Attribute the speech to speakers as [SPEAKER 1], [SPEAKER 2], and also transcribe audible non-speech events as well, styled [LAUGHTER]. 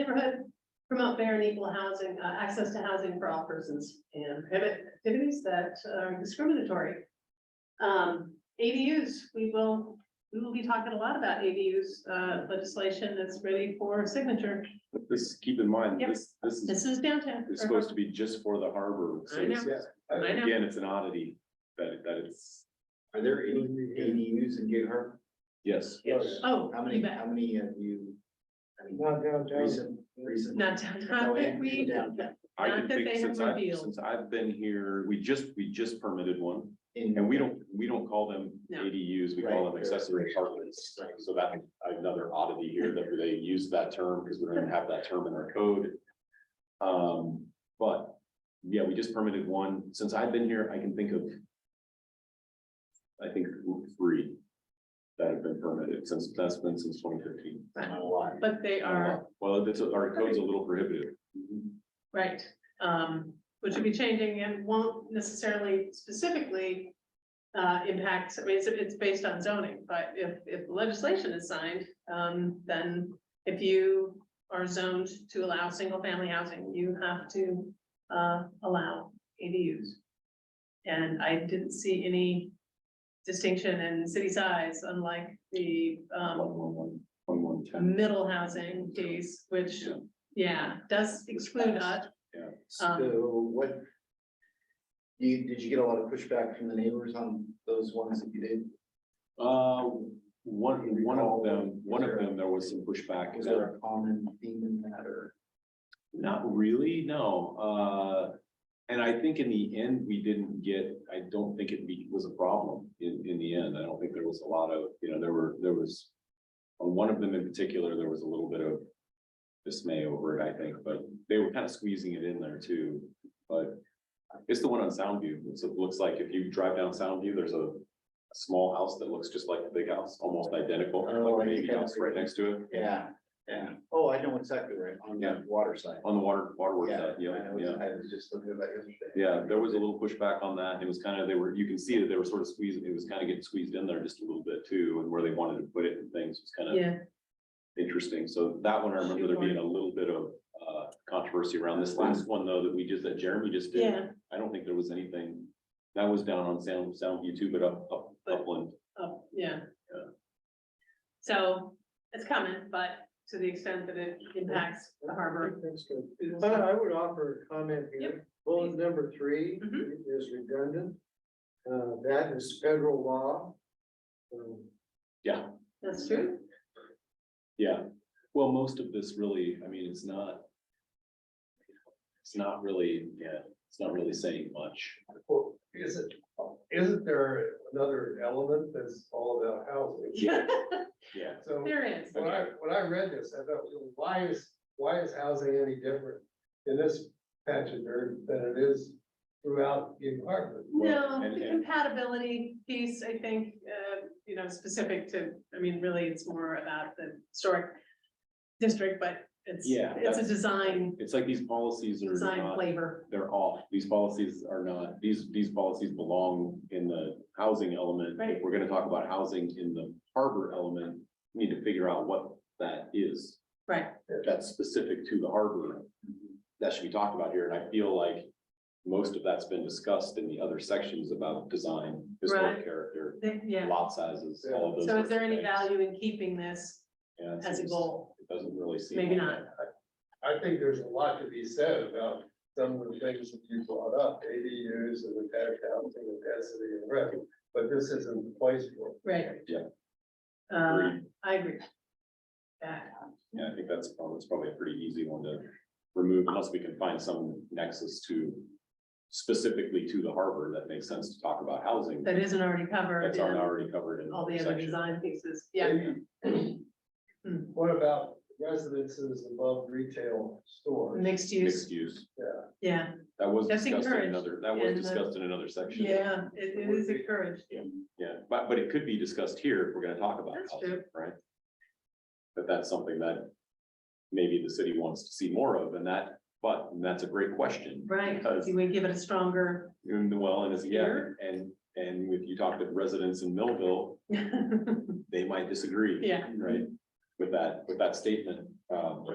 [SPEAKER 1] neighborhood, promote fair and equal housing, uh, access to housing for all persons, and prohibit activities that are discriminatory. Um, ADUs, we will, we will be talking a lot about ADUs, uh, legislation that's ready for signature.
[SPEAKER 2] But This, keep in mind,
[SPEAKER 1] Yep.
[SPEAKER 2] this, this is,
[SPEAKER 1] This is downtown.
[SPEAKER 2] is supposed to be just for the harbor. so
[SPEAKER 3] I
[SPEAKER 2] it's-
[SPEAKER 3] know. I know.
[SPEAKER 2] Again, it's an oddity that, that it's,
[SPEAKER 4] Are there any ADUs in Gig Harbor?
[SPEAKER 2] yes,
[SPEAKER 3] Yes.
[SPEAKER 1] Oh,
[SPEAKER 4] How
[SPEAKER 1] you
[SPEAKER 4] many,
[SPEAKER 1] bet.
[SPEAKER 4] how many have you? I mean,
[SPEAKER 3] Not downtown.
[SPEAKER 4] recent, recent.
[SPEAKER 1] Not downtown, but we,
[SPEAKER 2] I
[SPEAKER 1] Not
[SPEAKER 2] can
[SPEAKER 1] that
[SPEAKER 2] think
[SPEAKER 1] they have
[SPEAKER 2] since I,
[SPEAKER 1] revealed.
[SPEAKER 2] since I've been here, we just, we just permitted one.
[SPEAKER 4] in-
[SPEAKER 2] And we don't, we don't call them
[SPEAKER 1] No.
[SPEAKER 2] ADUs, we call
[SPEAKER 4] Right.
[SPEAKER 2] them accessory apartments.
[SPEAKER 4] Right.
[SPEAKER 2] So that, another oddity here that they use that term because we don't even have that term in our code. Um, but yeah, we just permitted one. Since I've been here, I can think of I think three that have been permitted since, that's been since twenty fifteen.
[SPEAKER 4] Not a lot.
[SPEAKER 1] but they are,
[SPEAKER 2] Well, that's, our code's a little prohibitive.
[SPEAKER 1] right, um, which will be changing and won't necessarily specifically uh, impact, I mean, it's, it's based on zoning, but if, if legislation is signed, um, then if you are zoned to allow single-family housing, you have to uh, allow ADUs. And I didn't see any distinction in city size, unlike the um,
[SPEAKER 2] One, one, one, one, one, ten.
[SPEAKER 1] middle housing piece, which,
[SPEAKER 2] Yeah.
[SPEAKER 1] yeah, does exclude us.
[SPEAKER 4] So what? You, did you get a lot of pushback from the neighbors on those ones that you did?
[SPEAKER 2] Uh, one, one of them, one of them, there was some pushback.
[SPEAKER 4] Is there a common theme in that or?
[SPEAKER 2] Not really, no, uh, and I think in the end, we didn't get, I don't think it be- was a problem in, in the end, I don't think there was a lot of, you know, there were, there was. On one of them in particular, there was a little bit of dismay over it, I think, but they were kind of squeezing it in there too, but. It's the one on Soundview, it's, it looks like if you drive down Soundview, there's a, a small house that looks just like the big house, almost identical,
[SPEAKER 4] Oh, I
[SPEAKER 2] like a baby
[SPEAKER 4] think I-
[SPEAKER 2] house right next to it.
[SPEAKER 4] Yeah, yeah. Oh, I know exactly right, on the
[SPEAKER 2] Yeah.
[SPEAKER 4] water side.
[SPEAKER 2] On the water, waterworks,
[SPEAKER 4] Yeah,
[SPEAKER 2] side, yeah,
[SPEAKER 4] I was-
[SPEAKER 2] yeah.
[SPEAKER 4] I was just looking at that yesterday.
[SPEAKER 2] Yeah, there was a little pushback on that. and It was kind of, they were, you can see that they were sort of squeezing, it was kind of getting squeezed in there just a little bit too, and where they wanted to put it and things was kind of
[SPEAKER 1] Yeah,
[SPEAKER 2] interesting. So that one, I remember there being a little bit of uh controversy around this last one, though, that we just, that Jeremy just did.
[SPEAKER 1] yeah,
[SPEAKER 2] I don't think there was anything. That was down on Sound, Soundview too, but up, up, upland.
[SPEAKER 1] oh, yeah.
[SPEAKER 2] Yeah.
[SPEAKER 1] So it's coming, but to the extent that it impacts the harbor.
[SPEAKER 3] That's good.
[SPEAKER 1] we will
[SPEAKER 3] I,
[SPEAKER 1] see.
[SPEAKER 3] I would offer a comment here. Bullet number three
[SPEAKER 1] Mhm.
[SPEAKER 3] is redundant. Uh, that is federal law. Um,
[SPEAKER 1] That's true.
[SPEAKER 2] Yeah, well, most of this really, I mean, it's not. It's not really, yeah, it's not really saying much.
[SPEAKER 5] Well, is it, isn't there another element that's all about housing?
[SPEAKER 2] Yeah, yeah.
[SPEAKER 5] So
[SPEAKER 1] [LAUGHS] There is.
[SPEAKER 5] when I, when I read this, I thought, well, why is, why is housing any different in this patch of dirt than it is throughout the environment?
[SPEAKER 1] No,
[SPEAKER 2] and-
[SPEAKER 1] the
[SPEAKER 2] and-
[SPEAKER 1] compatibility piece, I think, uh, you know, specific to, I mean, really, it's more about the historic district, but it's,
[SPEAKER 2] Yeah,
[SPEAKER 1] it's a
[SPEAKER 2] that's-
[SPEAKER 1] design,
[SPEAKER 2] It's like these policies are
[SPEAKER 1] design
[SPEAKER 2] not,
[SPEAKER 1] flavor.
[SPEAKER 2] they're off. These policies are not, these, these policies belong in the housing element.
[SPEAKER 1] Right.
[SPEAKER 2] If we're gonna talk about housing in the harbor element, we need to figure out what that is.
[SPEAKER 1] Right.
[SPEAKER 2] That's specific to the harbor. That should be talked about here, and I feel like most of that's been discussed in the other sections about design, historic
[SPEAKER 1] Right.
[SPEAKER 2] character,
[SPEAKER 1] They- Yeah.
[SPEAKER 2] lot sizes, all of those.
[SPEAKER 1] So
[SPEAKER 2] sorts
[SPEAKER 1] is there
[SPEAKER 2] of
[SPEAKER 1] any
[SPEAKER 2] things.
[SPEAKER 1] value in keeping this
[SPEAKER 2] Yeah, it's
[SPEAKER 1] as a
[SPEAKER 2] just-
[SPEAKER 1] goal?
[SPEAKER 2] It doesn't really seem.
[SPEAKER 1] Maybe
[SPEAKER 2] like
[SPEAKER 1] not.
[SPEAKER 2] that.
[SPEAKER 5] I think there's a lot to be said about some of the things that you brought up, ADUs and attached housing and density and rent, but this isn't the place for it.
[SPEAKER 1] Right.
[SPEAKER 2] Yeah.
[SPEAKER 1] Uh,
[SPEAKER 2] Agreed.
[SPEAKER 1] I agree. Yeah,
[SPEAKER 2] Yeah, I think that's probably, that's probably a pretty easy one to remove unless we can find some nexus to specifically to the harbor that makes sense to talk about housing.
[SPEAKER 1] that isn't already covered
[SPEAKER 2] That's
[SPEAKER 1] in
[SPEAKER 2] already covered in.
[SPEAKER 1] all the other
[SPEAKER 2] section.
[SPEAKER 1] design pieces, yeah.
[SPEAKER 5] Maybe- [CLEARS THROAT]
[SPEAKER 1] Hmm.
[SPEAKER 5] What about residences above retail stores?
[SPEAKER 1] Mixed use,
[SPEAKER 2] Mixed use.
[SPEAKER 1] yeah,
[SPEAKER 2] That was
[SPEAKER 1] That's
[SPEAKER 2] discussed in
[SPEAKER 1] encouraged
[SPEAKER 2] another, that
[SPEAKER 1] in
[SPEAKER 2] was
[SPEAKER 1] the-
[SPEAKER 2] discussed in another section.
[SPEAKER 1] yeah, it- it is encouraged,
[SPEAKER 2] Yeah, but, but it could be discussed here if we're gonna talk about
[SPEAKER 1] That's
[SPEAKER 2] housing,
[SPEAKER 1] true.
[SPEAKER 2] right? But that's something that maybe the city wants to see more of and that, but that's a great question.
[SPEAKER 1] right?
[SPEAKER 2] Because
[SPEAKER 1] Do we give it a stronger? [LAUGHS]
[SPEAKER 2] And well, and it's, yeah,
[SPEAKER 1] Here?
[SPEAKER 2] and, and if you talk to residents in Millville,
[SPEAKER 1] Yeah,
[SPEAKER 2] they might disagree. Right, with that, with that statement, um,